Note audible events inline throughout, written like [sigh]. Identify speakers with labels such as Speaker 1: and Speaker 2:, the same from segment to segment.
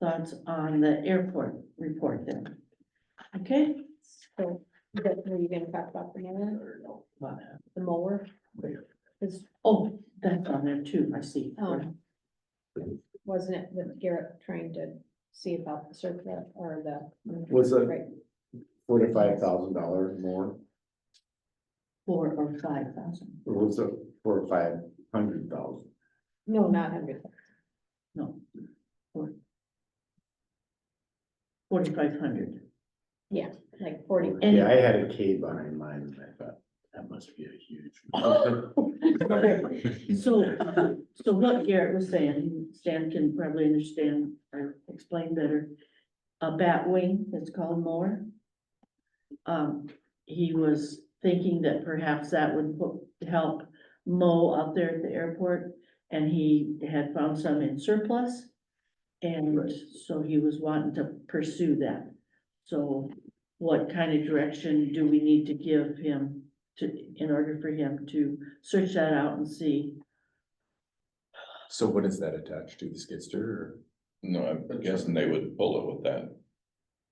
Speaker 1: thoughts on the airport report then. Okay?
Speaker 2: So, that, were you gonna talk about the mower,
Speaker 1: Well,
Speaker 2: the mower? Cause
Speaker 1: Oh, that's on there too, I see.
Speaker 2: Um, wasn't it with Garrett trying to see about the circuit or the?
Speaker 3: Was it
Speaker 2: Right,
Speaker 3: forty-five thousand dollars more,
Speaker 1: Four or five thousand,
Speaker 3: or was it four or five hundred thousand?
Speaker 2: no, not hundred,
Speaker 1: no. Forty-five hundred.
Speaker 2: like forty.
Speaker 1: And-
Speaker 3: Yeah, I had a K behind mine, and I thought, that must be a huge.
Speaker 1: [laughs] So, uh, so what Garrett was saying, Stan can probably understand or explain better. A bat wing, it's called more. Um, he was thinking that perhaps that would po- help mow out there at the airport. And he had found some in surplus. And
Speaker 3: Right.
Speaker 1: so he was wanting to pursue that. So what kind of direction do we need to give him to, in order for him to search that out and see?
Speaker 3: So what is that attached to, the skidster or?
Speaker 4: No, I'm guessing they would pull it with that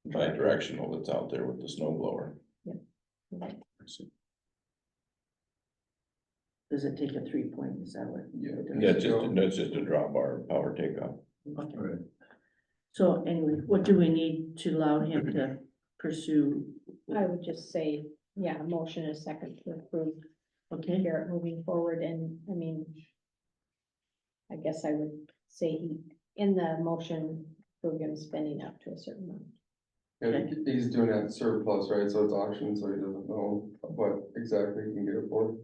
Speaker 4: bi-directional that's out there with the snow blower.
Speaker 1: Does it take a three point? Is that what?
Speaker 4: Yeah.
Speaker 1: it
Speaker 4: Yeah, it's
Speaker 1: does?
Speaker 4: just, that's just a drop bar power takeoff.
Speaker 1: Okay.
Speaker 3: Right.
Speaker 1: So anyway, what do we need to allow him to pursue?
Speaker 2: I would just say, yeah, a motion is second to approve
Speaker 1: Okay,
Speaker 2: Garrett moving forward and, I mean. I guess I would say he, in the motion, we're gonna spending up to a certain amount.
Speaker 5: Yeah, he- he's doing it at surplus, right, so it's auction, so he doesn't know what exactly he can get it for.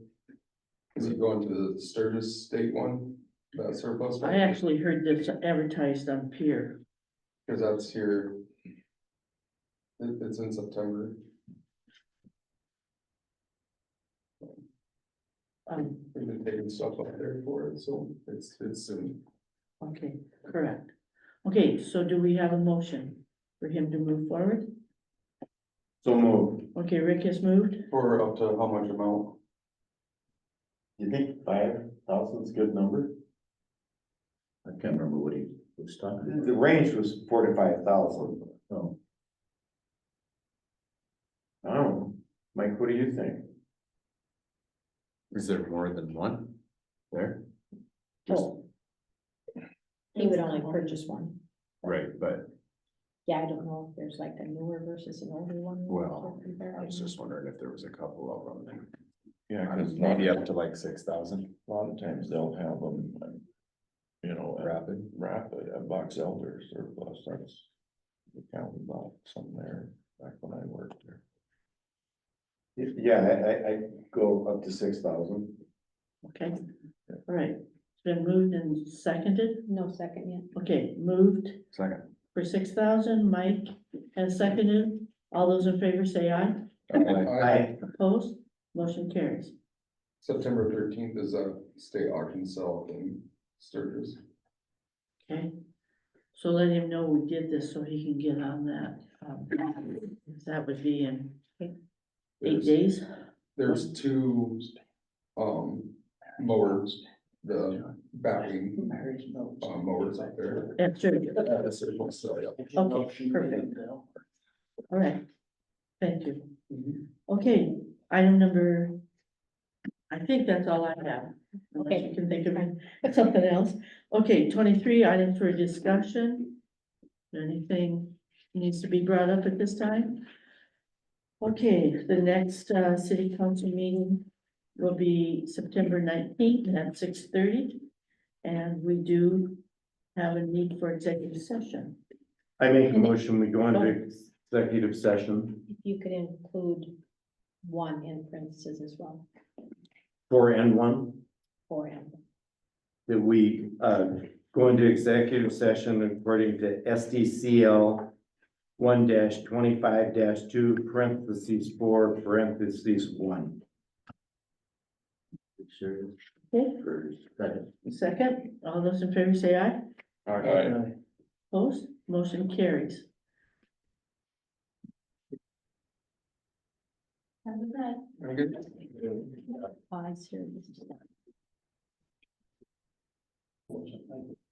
Speaker 5: Is he going to the Sturgis State one, that surplus? one?
Speaker 1: I actually heard this advertised on Pier.
Speaker 5: Cause that's here. It, it's in September,
Speaker 1: Um,
Speaker 5: we've been taking stuff up there for it, so it's, it's soon.
Speaker 1: okay, correct. Okay, so do we have a motion for him to move forward?
Speaker 3: So moved.
Speaker 1: Okay, Rick has moved.
Speaker 5: For up to how much amount?
Speaker 3: You think five thousand's a good number? I can't remember what he was talking. The range was forty-five thousand. Oh. I don't know, Mike, what do you think? Is there more than one there?
Speaker 2: Oh. He would only purchase one.
Speaker 3: Right, but
Speaker 2: Yeah, I don't know if there's like a newer versus an older one.
Speaker 3: Well, wondering if there was a couple of them
Speaker 4: Yeah, cause a lot,
Speaker 3: Maybe
Speaker 4: a
Speaker 3: up to like six thousand.
Speaker 4: lot of times they'll have them, um, you know, at
Speaker 3: Rapid.
Speaker 4: rapid, at Box Elder surplus, that's the county bought some there back when I worked there.
Speaker 3: Yeah, I, I, I go up to six thousand.
Speaker 1: Okay, all right. It's been moved and seconded.
Speaker 2: No second yet.
Speaker 1: Okay, moved
Speaker 3: Second.
Speaker 1: for six thousand. Mike has seconded. All those in favor say aye.
Speaker 5: I-
Speaker 1: Opposed? Motion carries.
Speaker 5: September thirteenth is a state auction sale in Sturgis.
Speaker 1: Okay, so let him know we did this so he can get on that. um, That would be in eight
Speaker 5: There's-
Speaker 1: days.
Speaker 5: There's two, um, mowers, the batwing, uh,
Speaker 4: Oh,
Speaker 5: mowers up there.
Speaker 1: That's true.
Speaker 5: Yeah, that's it, we'll sell it.
Speaker 1: Okay, perfect. All right. Thank you. Okay, item number. I think that's all I have. Unless you
Speaker 2: Okay.
Speaker 1: can think of [laughs] something else. Okay, twenty-three items for discussion. Anything needs to be brought up at this time? Okay, the next uh city council meeting will be September nineteenth at six thirty. And we do have a need for executive session.
Speaker 3: I make a motion, we go into executive session
Speaker 2: If you could include one in parentheses as well,
Speaker 3: for N one.
Speaker 2: for him.
Speaker 3: that we uh go into executive session according to SDCL one twenty-five two parentheses four parentheses one. Sure.
Speaker 1: Okay, second, all those in favor say aye.
Speaker 3: All
Speaker 4: right.
Speaker 1: Opposed, motion carries.
Speaker 2: Have a good
Speaker 5: Very good.
Speaker 2: pause here. just a second.